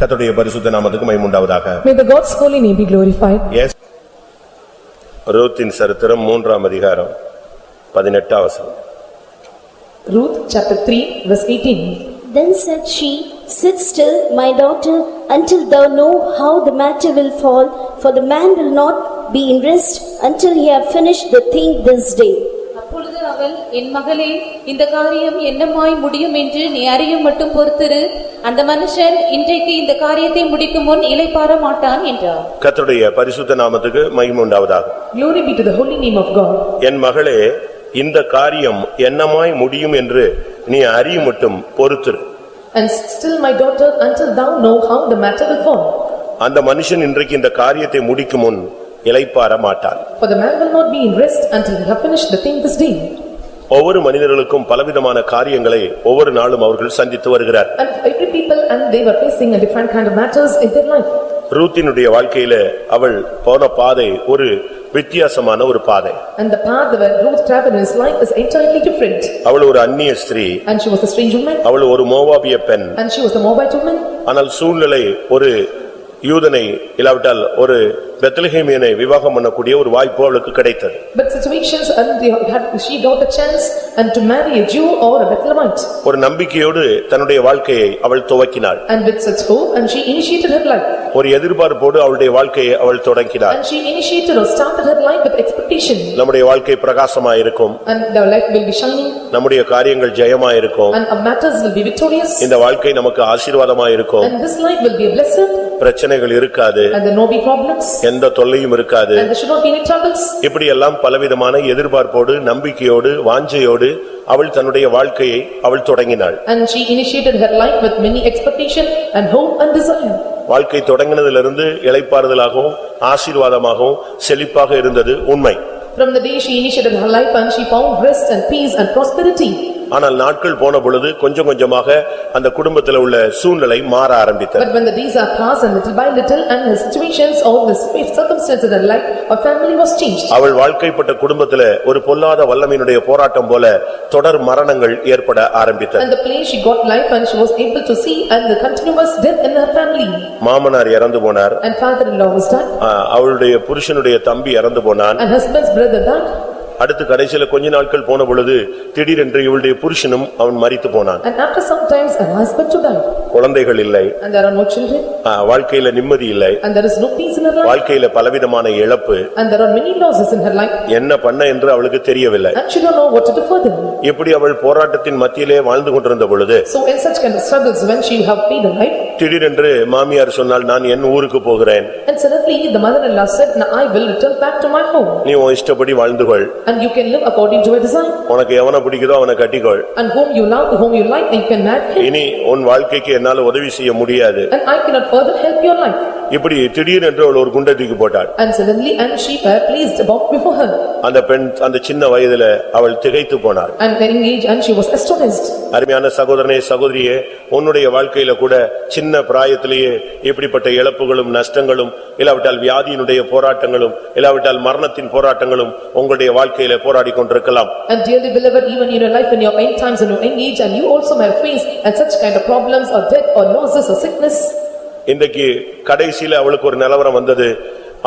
கர்த்தருடைய பரிசுத்த நாமத்துக்கு மைமுண்டாவதாக May the God's holy name be glorified. Yes ரூத்தின் சரித்திரம் மூன்றாம் அதிகாரம் பதினெட்டாம் வசனம் Ruth, chapter 3, verse 18. Then said she, Sit still, my daughter, until thou know how the matter will fall, for the man will not be in rest until he have finished the thing this day. அப்பொழுது அவள் என் மகளே இந்த காரியம் என்னமாய் முடியும் என்று நீ அறிய மட்டும் பொறுத்திரு அந்த மனுஷன் இன்றைக்கு இந்த காரியத்தை முடிக்கும் முன் இளைப்பாற மாட்டான் என்றார் கர்த்தருடைய பரிசுத்த நாமத்துக்கு மைமுண்டாவதாக Glory be to the holy name of God. என் மகளே இந்த காரியம் என்னமாய் முடியும் என்று நீ அறியுமட்டும் பொறுத்திரு And still my daughter, until thou know how the matter will fall. அந்த மனுஷன் இன்றைக்கு இந்த காரியத்தை முடிக்கும் முன் இளைப்பாற மாட்டான் For the man will not be in rest until he have finished the thing this day. ஒவ்வொரு மனிதர்களுக்கும் பலவிதமான காரியங்களை ஒவ்வொரு நாளும் அவர்கள் சந்தித்து வருகிறார் And every people and they were facing a different kind of matters in their life. ரூத்தினுடைய வாழ்க்கையில அவள் போன பாதை ஒரு வித்தியாசமான ஒரு பாதை And the path where Ruth traveled in his life is entirely different. அவள் ஒரு அந்நிய ஸ்திரீ And she was a strange woman அவள் ஒரு மோவாபிய பெண் and she was a Moabite woman. ஆனால் சூழ்நிலை ஒரு யூதனை இல்லாவிட்டால் ஒரு பெத்லஹேமியனை விவாகம் பண்ணக்கூடிய ஒரு வாய்ப்பு அவளுக்கு கிடைத்தது But situations and they had, she got a chance and to marry a Jew or a Bethlehemite. ஒரு நம்பிக்கையோடு தன்னுடைய வாழ்க்கையை அவள் துவக்கினாள் And with such hope and she initiated her life. ஒரு எதிர்பார்ப்போடு அவளுடைய வாழ்க்கையை அவள் தொடங்கினாள் And she initiated or started her life with expectation. நம்முடைய வாழ்க்கை பிரகாசமா இருக்கும் And our life will be shining நம்முடைய காரியங்கள் ஜெயமா இருக்கும் and our matters will be victorious. இந்த வாழ்க்கை நமக்கு ஆசீர்வாதமா இருக்கும் And this life will be a blessing பிரச்சனைகள் இருக்காது and there no be problems எந்த தொல்லையும் இருக்காது and there should not be any troubles. இப்படியெல்லாம் பலவிதமான எதிர்பார்ப்போடு நம்பிக்கையோடு வாஞ்சையோடு அவள் தன்னுடைய வாழ்க்கையை அவள் தொடங்கினாள் And she initiated her life with many expectation and hope and desire. வாழ்க்கை தொடங்கினதிலிருந்து இளைப்பாறுதலாகவும் ஆசீர்வாதமாகவும் செழிப்பாக இருந்தது உண்மை From the day she initiated her life and she found rest and peace and prosperity. ஆனால் நாட்கள் போன பொழுது கொஞ்சம் கொஞ்சமாக அந்த குடும்பத்தில் உள்ள சூழ்நிலை மாற ஆரம்பித்தது But when the days are passed and little by little and her situations or the circumstances in her life, her family was changed. அவள் வாழ்க்கைப்பட்ட குடும்பத்துல ஒரு பொல்லாத வல்லமையினுடைய போராட்டம் போல தொடர் மரணங்கள் ஏற்பட ஆரம்பித்தது And the place she got life and she was able to see and the continuous death in her family. மாமனார் இறந்து போனார் And father-in-law was died ஆ, அவளுடைய புருஷனுடைய தம்பி இறந்து போனான் and husband's brother died. அடுத்து கடைசியில கொஞ்ச நாட்கள் போன பொழுது திடீரென்று இவளுடைய புருஷனும் அவன் மரித்து போனான் And after some times her husband too died. குழந்தைகள் இல்லை And there are no children ஆ, வாழ்க்கையில நிம்மதி இல்லை and there is no peace in her life. வாழ்க்கையில பலவிதமான இழப்பு And there are many losses in her life என்ன பண்ண என்று அவளுக்கு தெரியவில்லை and she don't know what to do further. இப்படி அவள் போராட்டத்தின் மத்தியிலே வாழ்ந்து கொண்டிருந்த பொழுது So in such kind of struggles when she have paid her life திடீரென்று மாமியார் சொன்னால் நான் என் ஊருக்கு போகிறேன் and suddenly the mother-in-law said, "Now I will return back to my home நீ உன் இஷ்டப்படி வாழ்ந்து கொள் and you can live according to your design உனக்கு எவனை பிடிக்குதோ அவனை கட்டிக்கொள் and whom you love, whom you like, you can marry him இனி உன் வாழ்க்கைக்கு என்னால உதவி செய்ய முடியாது and I cannot further help your life." இப்படி திடீரென்று அவள் ஒரு குண்டை தூக்கி போட்டாள் And suddenly and she were pleased about before her அந்த பெண் அந்த சின்ன வயதுல அவள் திகைத்து போனாள் and engaged and she was astonished. அருமையான சகோதரனே சகோதரியே உன்னுடைய வாழ்க்கையில கூட சின்ன பிராயத்திலேயே இப்படிப்பட்ட இழப்புகளும் நஷ்டங்களும் இல்லாவிட்டால் வியாதியினுடைய போராட்டங்களும் இல்லாவிட்டால் மரணத்தின் போராட்டங்களும் உங்களுடைய வாழ்க்கையில போராடிக் கொண்டிருக்கலாம் And dearly beloved, even in your life in your end times and your end age and you also may face and such kind of problems or death or losses or sickness. இன்றைக்கு கடைசியில அவளுக்கு ஒரு நிலவரம் வந்தது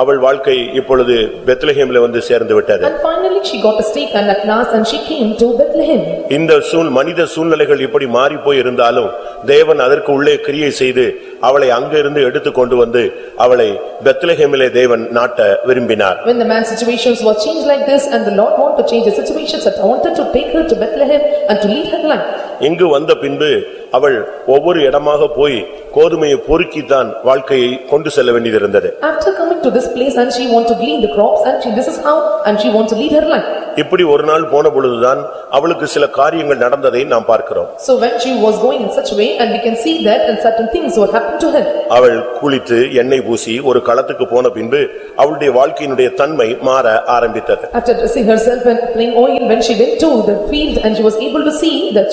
அவள் வாழ்க்கை இப்பொழுது பெத்லஹேம்ல வந்து சேர்ந்து விட்டது And finally she got a stake and at last and she came to Bethlehem. இந்த சூழ் மனித சூழ்நிலைகள் இப்படி மாறிப்போய் இருந்தாலும் தேவன் அதற்கு உள்ளே கிரியை செய்து அவளை அங்கிருந்து எடுத்து கொண்டு வந்து அவளை பெத்லஹேமிலே தேவன் நாட்ட விரும்பினார் When the man's situations were changed like this and the Lord wanted to change the situations and wanted to take her to Bethlehem and to lead her life. இங்கு வந்த பின்பு அவள் ஒவ்வொரு இடமாக போய் கோதுமையை பொறுக்கித்தான் வாழ்க்கையை கொண்டு செல்ல வேண்டியிருந்தது After coming to this place and she want to glean the crops and she this is how and she want to lead her life. இப்படி ஒரு நாள் போன பொழுதுதான் அவளுக்கு சில காரியங்கள் நடந்ததை நாம் பார்க்கிறோம் So when she was going in such way and we can see that and certain things were happened to her. அவள் குளித்து எண்ணெய் பூசி ஒரு களத்துக்கு போன பின்பு அவளுடைய வாழ்க்கையினுடைய தன்மை மாற ஆரம்பித்தது After dressing herself and applying oil, when she went to the field and she was able to see that